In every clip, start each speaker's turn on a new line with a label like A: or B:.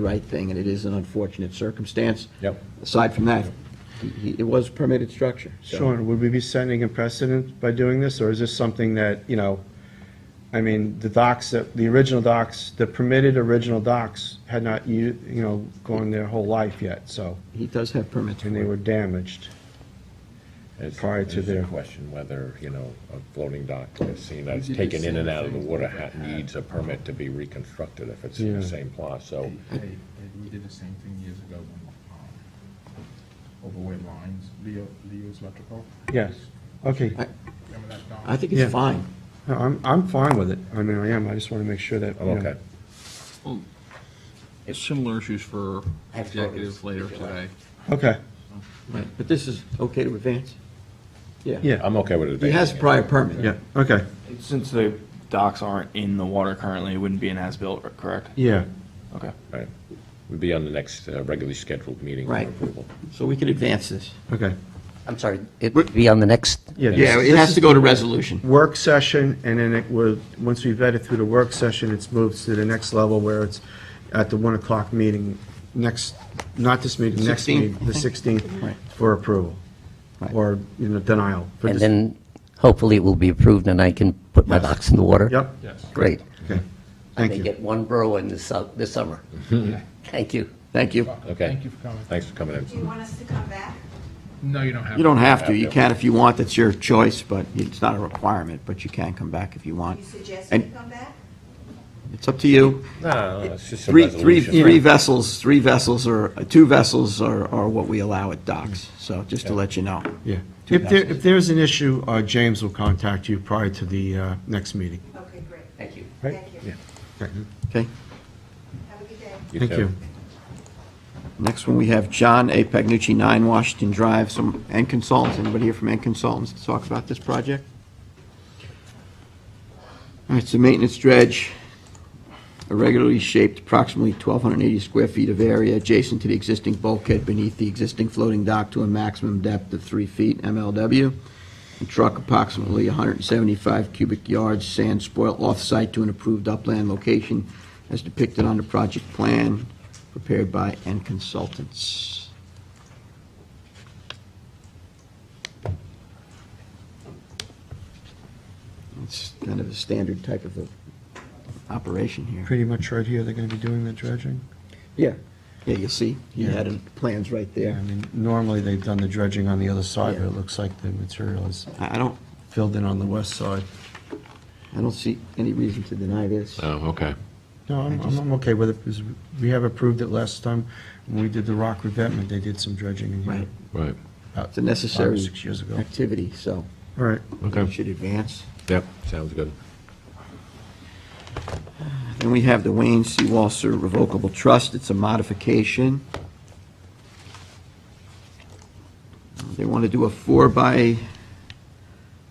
A: the right thing, and it is an unfortunate circumstance.
B: Yep.
A: Aside from that, he- he- it was permitted structure. so-
C: Sean, would we be setting a precedent by doing this, or is this something that, you know, I mean, the docks, that the original docks, the permitted original docks had not, you, you know, gone their whole life yet, so,
A: He does have permits for
C: and they
A: it.
C: were damaged.
B: It's-
C: Prior to
B: it's a
C: their-
B: Question whether, you know, a floating dock that's seen, that's taken in and out of the water ha- needs a permit to be reconstructed if it's in the
C: Yeah.
B: same plot, so.
A: Oh.
D: Hey, hey, we did the same thing years ago when, um, over where lines, Leo, Leo's Electrical.
C: Yes, okay,
D: Remember that, Don?
A: I think
C: Yeah.
A: it's fine.
C: No, I'm, I'm fine with it, I mean, I am, I just want to make sure that,
B: I'm
C: you know.
B: okay.
E: Similar issues for executive later today.
C: Okay,
A: Right, But this is okay to advance? Yeah.
C: yeah,
B: I'm okay with it.
A: He has prior permit.
C: yeah, okay,
F: Since the docks aren't in the water currently, it wouldn't be an as-built, correct?
C: yeah,
F: Okay.
B: Right. We'd be on the next uh, regularly scheduled meeting for
A: Right.
B: approval.
A: So we can advance this.
C: okay.
G: I'm sorry, it would be on the next,
C: Yeah, this-
A: Yeah, it
C: this
A: has
C: is
A: to go to resolution.
C: Work session, and then it would, once we vet it through the work session, it's moved to the next level where it's at the one o'clock meeting, next, not this meeting, next
A: 16th,
C: meeting, the sixteenth,
A: Right.
C: for approval,
A: Right.
C: or, you know, denial. for
G: and
C: dis-
G: then hopefully it will be approved and I can put my
C: Yes.
G: box in the water?
C: Yep,
G: Great.
C: okay,
G: I
C: thank
G: may
C: you.
G: get one burrow in this, su- this summer. Thank you.
A: Thank you.
B: Okay.
D: Thank you for coming.
B: Thanks for coming
H: Do you
B: in. Uh,
H: want us to come back?
D: No, you don't have.
A: You don't have to, you can if you want, that's your choice, but it's not a requirement, but you can come back if you
H: Do
A: want.
H: you suggest we
A: And
H: come back?
A: it's up to you.
B: No, no, it's just a
A: Three, three,
B: resolution.
A: three vessels, three vessels or, two vessels are, are what we allow at docks, so just to let you know.
C: Mm. Yeah. If there, if there's an issue, uh, James will contact you prior to the, uh, next meeting.
H: Okay, great.
G: Thank you.
C: Right.
H: Thank you.
C: Okay,
A: Okay?
H: Have a good day.
C: Thank
B: too.
C: you.
A: Next one, we have John A. Pagnucci, 9 Washington Drive, some, N Consultants. Anybody here from N Consultants to talk about this project? All right, so maintenance dredge, irregularly shaped, approximately 1,280 square feet of area adjacent to the existing bulkhead beneath the existing floating dock to a maximum depth of 3 feet MLW. And truck approximately 175 cubic yards sand spoil off-site to an approved upland location as depicted on the project plan prepared by N Consultants. It's kind of a standard type of a operation here.
C: Pretty much right here, they're gonna be doing the dredging?
A: Yeah. Yeah, you see, he had his plans right
C: Yeah, I
A: there.
C: mean, normally they've done the dredging on the other side, but
A: Yeah.
C: it looks like the material is
A: I I don't,
C: filled in on the west side.
A: I don't see any reason to deny this.
B: Oh, okay.
C: No, I'm, I'm I'm okay with it, because we have approved it last time, when we did the rock revetment, they did some dredging in here.
A: Right.
B: Right.
C: about
A: It's a necessary
C: Five or six years ago.
A: activity, so
C: All right,
A: we should advance.
B: Yep, sounds good.
A: Then we have the Wayne C. Walser Revocable Trust. It's a modification. Uh, They want to do a four by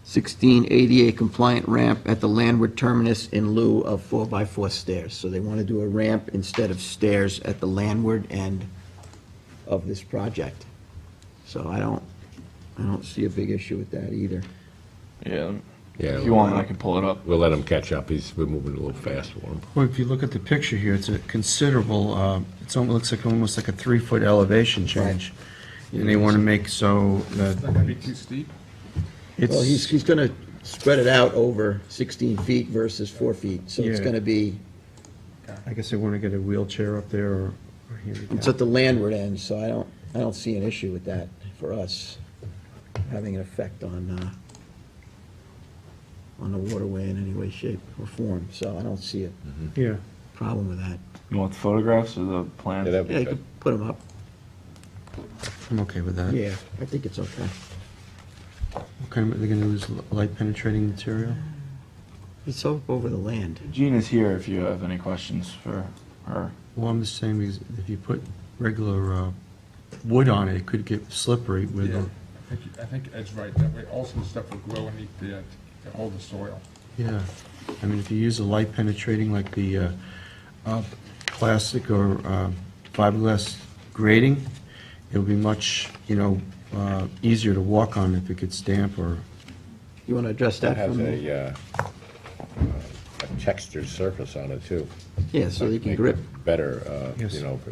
A: 16 ADA compliant ramp at the landward terminus in lieu of four by four stairs. So they want to do a ramp instead of stairs at the landward end of this project. So I don't, I don't see a big issue with that either.
F: Yeah.
B: Yeah.
F: If you want, I can pull it up.
B: We'll let him catch up. He's, we're moving a little fast for him.
C: well, if you look at the picture here, it's a considerable, uh, it's almost, looks like almost like a three-foot elevation change. And they want to make so
D: It's not gonna be
C: that
D: too steep.
A: Well, he's,
C: it's,
A: he's going to spread it out over 16 feet versus four feet, so it's
C: Yeah.
A: going to be,
C: I guess they want to get a wheelchair up there or or
A: it's at
C: handicap.
A: the landward end, so I don't, I don't see an issue with that for us, having an effect on, uh, on the waterway in any way, shape, or form, so I don't see a
C: Yeah,
A: problem with that.
F: You want the photographs or the plans?
B: Yeah, that'd
A: Yeah,
B: be
A: you
B: good.
A: can put them up,
C: I'm okay with that.
A: yeah, I think it's okay.
C: Okay, are they going to use light penetrating material?
A: It's o- over the land.
F: Jean is here if you have any questions for her.
C: Well, I'm just saying, because if you put regular uh, wood on it, it could get slippery with,
D: Yeah,
C: the-
D: I think, I think Ed's right, that way also stuff will grow underneath the, to hold the soil.
C: yeah. I mean, if you use a light penetrating, like the uh, uh, plastic or uh, fiberglass grating, it'll be much, you know, uh, easier to walk on if it gets damp or,
A: You want to address that
B: It
A: for
B: has
A: me?
B: a, uh, a textured surface on it, too.
A: Yeah, so they can
B: Make
A: grip,
B: it better, uh,
C: Yes.
B: you know,